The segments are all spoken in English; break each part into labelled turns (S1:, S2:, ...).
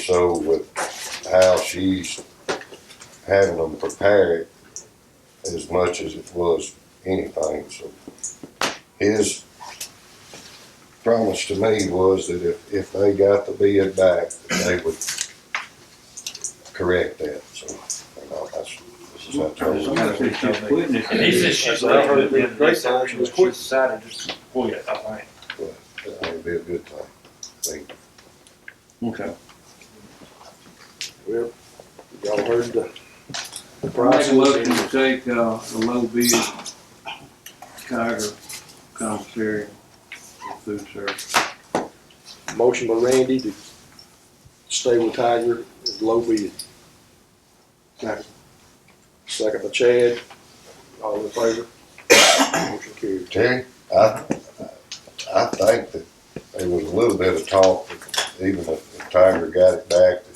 S1: So with how she's having them prepare it as much as it was anything, so. His promise to me was that if, if they got the bid back, that they would correct that, so. you know, that's- this is what I told him.
S2: And he said she's
S3: I heard
S2: leaving,
S3: it
S2: and
S3: great
S2: they said
S3: times,
S2: she
S3: but
S2: was
S3: she
S2: quitting.
S3: decided just to quit, I think.
S1: That would be a good thing, I think.
S3: Okay.
S2: Well, y'all heard the the
S4: Make
S2: price.
S4: a motion to take, uh, the low bid Tiger commissary and food service.
S2: Motion by Randy to stay with Tiger at low bid. Second. Second by Chad, all in favor? Motion carried.
S1: Terry, I, I think that there was a little bit of talk that even if the Tiger got it back, that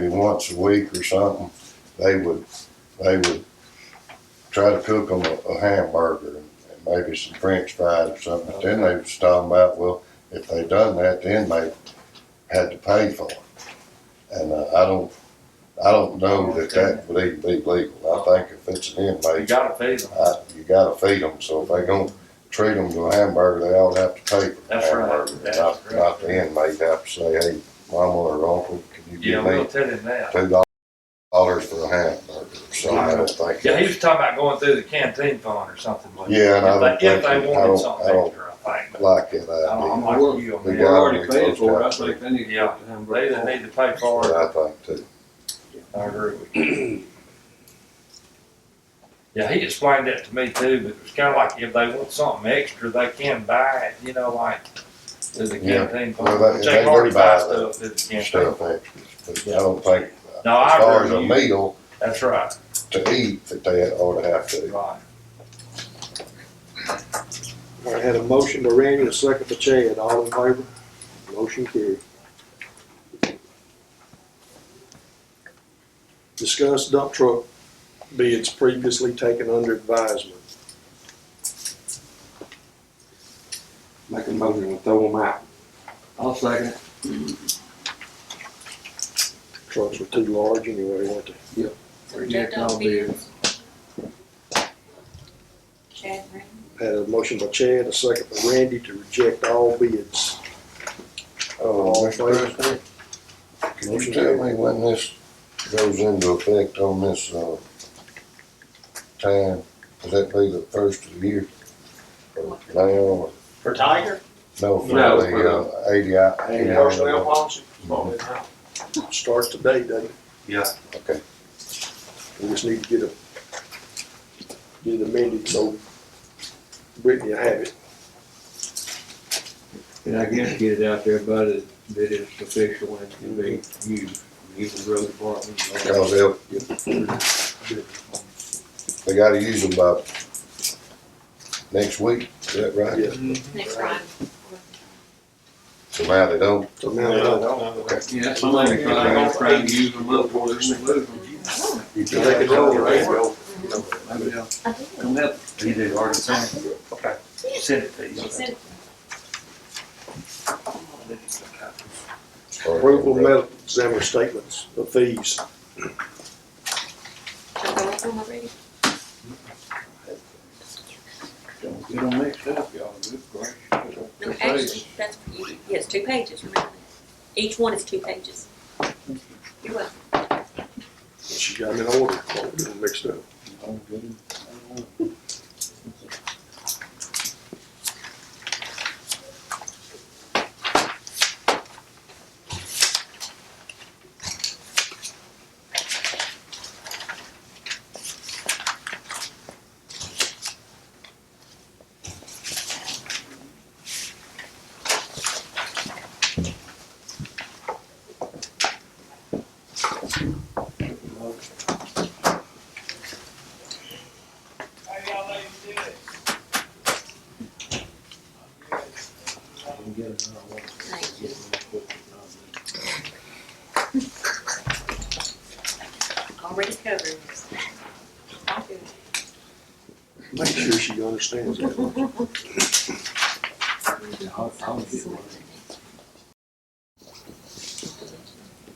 S1: maybe once a week or something, they would, they would try to cook them a a hamburger and maybe some french fries or something. But then they was talking about, well, if they done that, then they had to pay for it. And uh, I don't, I don't know that that would even be legal. I think if it's an inmate.
S3: You gotta feed them.
S1: I, you gotta feed them, so if they gonna treat them to a hamburger, they all have to pay for the
S3: That's right.
S1: hamburger.
S3: That's
S1: Not,
S3: right.
S1: not the inmate have to say, hey, mama or uncle, can you
S3: Yeah,
S1: give
S3: we'll
S1: me
S3: tell him that.
S1: two dollars for a hamburger? So I don't think.
S3: Yeah, he was talking about going through the canteen fund or something like.
S1: Yeah, and I don't
S3: If they, if
S1: think-
S3: they
S1: I
S3: wanted
S1: don't- I
S3: something
S1: don't
S3: extra, I think, but
S1: Like it,
S3: I don't- Oh, I'm
S1: I
S3: like you on
S1: We
S4: They
S3: that.
S4: already paid for it, I think they need to
S3: Yeah.
S4: get the
S3: They either
S4: hamburger.
S3: need to pay for
S1: do,
S3: it,
S1: I think too.
S3: I agree with you. Yeah, he explained that to me too, but it was kinda like if they want something extra, they can buy it, you know, like to the
S1: Yeah.
S3: canteen
S1: Well,
S3: fund,
S1: they-
S3: which
S1: they
S3: they
S1: do
S3: already
S1: buy
S3: buy
S1: that
S3: stuff through the canteen.
S1: Stuff extras, but I don't think, as
S3: No, I
S1: far as
S3: agree
S1: a
S3: with you.
S1: meal
S3: That's right.
S1: to eat, that they ought to have to.
S3: Right.
S2: I had a motion by Randy, and a second by Chad, all in favor? Motion carried. Discuss dump truck bids previously taken under advisement.
S5: Make a motion to throw them out.
S4: I'll second it.
S2: Trucks were too large anyway, weren't they?
S4: Reject all bids.
S6: Chad Green.
S2: Had a motion by Chad, a second by Randy to reject all bids.
S1: Oh, Mr. President, can you tell me when this goes into effect on this, uh, time? Does that be the first of the year? Or Now, or-
S7: For Tiger?
S1: no, for
S5: No,
S1: the, uh, eighty, eighty hours.
S7: policy?
S2: Starts today, doesn't it?
S3: Yeah.
S1: Okay,
S2: We just need to get a, get it amended so Brittany will have it.
S4: And I guess get it out there, but it, that it's official and can be used, use the road department. all that.
S1: cause they'll, they gotta use them by next week, is that right?
S2: Yeah.
S6: Next Friday.
S1: So now they don't,
S2: So now, uh,
S4: Yeah, that's something they gonna try and use them up for this move.
S2: they can roll, right?
S4: Maybe they'll
S6: I did.
S4: come up.
S3: He did already send it. Okay. Send it to you.
S6: She said,
S1: start
S2: Approval of
S1: over.
S2: medical examiner statements of fees.
S6: "Don't go with them already."
S4: Don't get them mixed up, y'all, good gracious.
S6: No, actually, that's, yes, two pages, remember that. Each one is two pages. You're welcome.
S2: She got them in order, Oh, we got them mixed up.
S4: Don't get 'em. Don't get 'em out.
S6: Thank you. Already covered. I'll do it.
S2: Make sure she understands that.
S4: I'll- I'll get one.